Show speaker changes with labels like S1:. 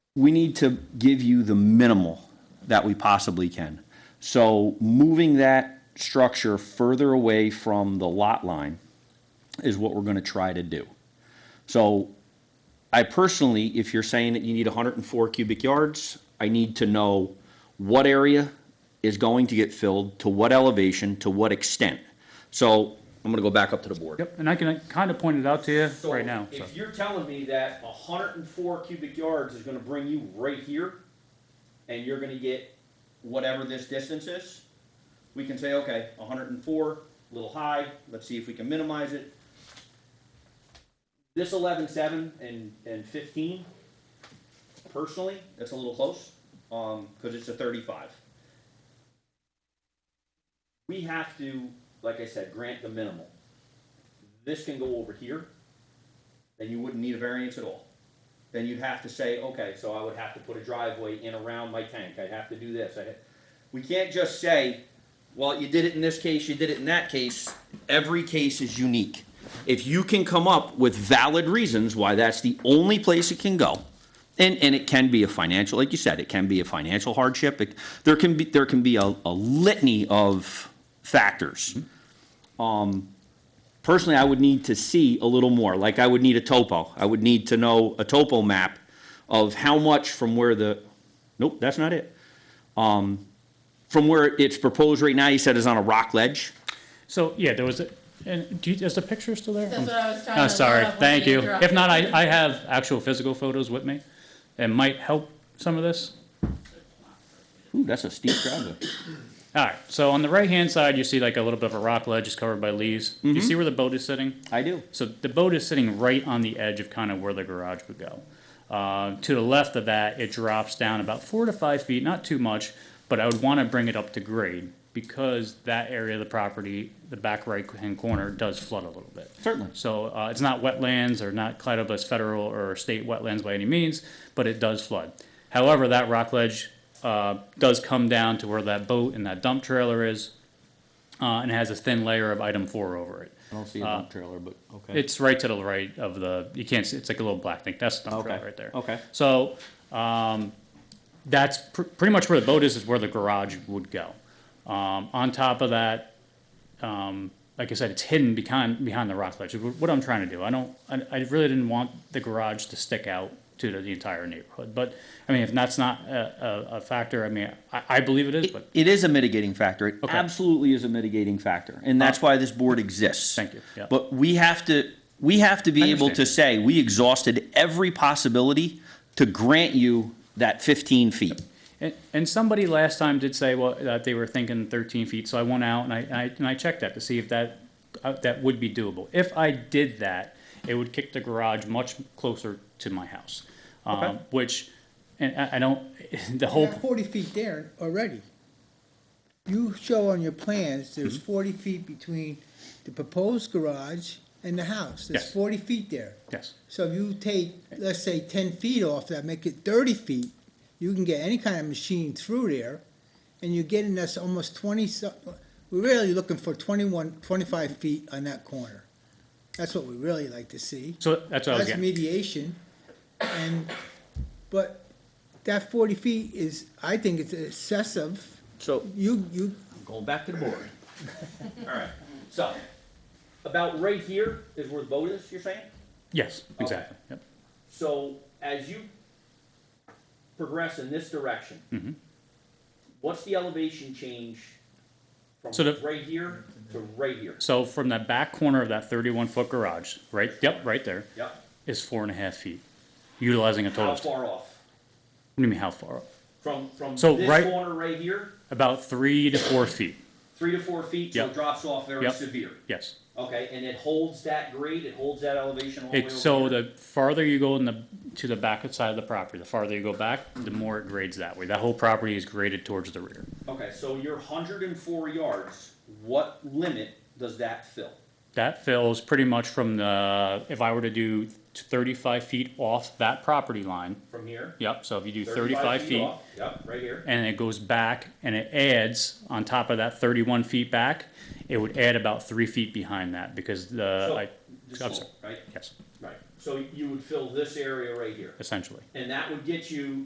S1: we need to give you the minimal that we possibly can. So moving that structure further away from the lot line is what we're gonna try to do. So I personally, if you're saying that you need hundred and four cubic yards, I need to know what area is going to get filled, to what elevation, to what extent. So I'm gonna go back up to the board.
S2: Yep, and I can kind of point it out to you right now. so.
S1: If you're telling me that hundred and four cubic yards is gonna bring you right here, and you're gonna get whatever this distance is, we can say, okay, hundred and four, a little high, let's see if we can minimize it. This eleven seven and, and fifteen, personally, that's a little close, um, cause it's a thirty-five. We have to, like I said, grant the minimal. This can go over here then you wouldn't need a variance at all. Then you'd have to say, okay, so I would have to put a driveway in around my tank, I'd have to do this, I, we can't just say, well, you did it in this case, you did it in that case, every case is unique. If you can come up with valid reasons why that's the only place it can go, and, and it can be a financial, like you said, it can be a financial hardship, it, there can be, there can be a, a litany of factors personally, I would need to see a little more, like I would need a topo. I would need to know a topo map of how much from where the, nope, that's not it. Um, from where it's proposed right now, you said is on a rock ledge.
S2: So, yeah, there was, a- and do you, is the picture still there?
S3: That's what I was trying to.
S2: Oh,
S3: look
S2: sorry,
S3: up when
S2: thank you.
S3: interrupted.
S2: If not, I, I have actual physical photos with me. It might help some of this.
S1: Ooh, that's a steep driveway.
S2: All right, so on the right-hand side, you see like a little bit of a rock ledge, it's covered by leaves. Do you see where the boat is sitting?
S1: I do.
S2: So the boat is sitting right on the edge of kind of where the garage would go. Uh, to the left of that, it drops down about four to five feet, not too much, but I would want to bring it up to grade because that area of the property, the back right-hand corner, does flood a little bit.
S1: Certainly.
S2: So uh, it's not wetlands or not cladded as federal or state wetlands by any means, but it does flood. However, that rock ledge uh, does come down to where that boat and that dump trailer is, uh, and has a thin layer of item four over it.
S1: I don't see a dump trailer, but okay.
S2: Uh, It's right to the right of the, you can't see, it's like a little black thing. That's the dump
S1: Okay,
S2: trailer right there.
S1: okay.
S2: So, um, that's pr- pretty much where the boat is, is where the garage would go. Um, on top of that, um, like I said, it's hidden behind, behind the rock ledge. Wh- What I'm trying to do, I don't, I, I really didn't want the garage to stick out to the, the entire neighborhood. But, I mean, if that's not a, a, a factor, I mean, I, I believe it is,
S1: It-
S2: but
S1: it is a mitigating factor. It
S2: Okay.
S1: absolutely is a mitigating factor, and that's why this board exists.
S2: Thank you, yeah.
S1: But we have to we have to
S2: I
S1: be able to
S2: understand.
S1: say we exhausted every possibility to grant you that 15 feet.
S2: And, and somebody last time did say, well, that they were thinking thirteen feet, so I went out and I, I, and I checked that to see if that, uh, that would be doable. If I did that, it would kick the garage much closer to my house.
S1: Okay.
S2: Um, which, and I, I don't, the
S4: You
S2: whole,
S4: have forty feet there already. You show on your plans, there's forty feet between the proposed garage and the
S2: Yes.
S4: house, there's forty feet there.
S2: yes,
S4: So if you take, let's say, ten feet off that, make it thirty feet, you can get any kind of machine through there, and you're getting us almost twenty, so- we're really looking for 21, 25 feet on that corner. That's what we really like to see.
S2: so that's what I was
S4: That's
S2: getting,
S4: mediation, and, but that forty feet is, I think it's excessive.
S1: So
S4: You, you,
S1: Going back to the board. All right, so, about right here is where the boat is, you're saying?
S2: yes, exactly, yep.
S1: So as you progress in this
S2: Mm-hmm.
S1: direction, what's the elevation change from
S2: So the-
S1: right here to right here?
S2: So from that back corner of that thirty-one foot garage, right, yep, right there,
S1: Yep,
S2: is four and a half feet, utilizing a total
S1: how
S2: of, what
S1: far off?
S2: do you mean, how far?
S1: From, from
S2: So
S1: this
S2: right-
S1: corner right here,
S2: About three to four feet,
S1: three to four feet, so
S2: Yep.
S1: it drops off very
S2: Yep.
S1: severe.
S2: yes.
S1: Okay, and it holds that grade, it holds that elevation all the way
S2: It,
S1: over
S2: so
S1: here?
S2: the farther you go in the, to the back side of the property, the farther you go back, the more it grades that way. That whole property is graded towards the rear.
S1: Okay, so your hundred and four yards, what limit does that fill?
S2: That fills pretty much from the, if I were to do thirty-five feet off that property line,
S1: From here?
S2: yep, so if you do thirty-five feet,
S1: off. Yep, right here.
S2: and it goes back and it adds on top of that thirty-one feet back, it would add about three feet behind that because
S1: So,
S2: the,
S1: this
S2: Uh, I, I'm
S1: little,
S2: sorry,
S1: Right,
S2: yes,
S1: right. So you would fill this area right here.
S2: essentially.
S1: And that would get you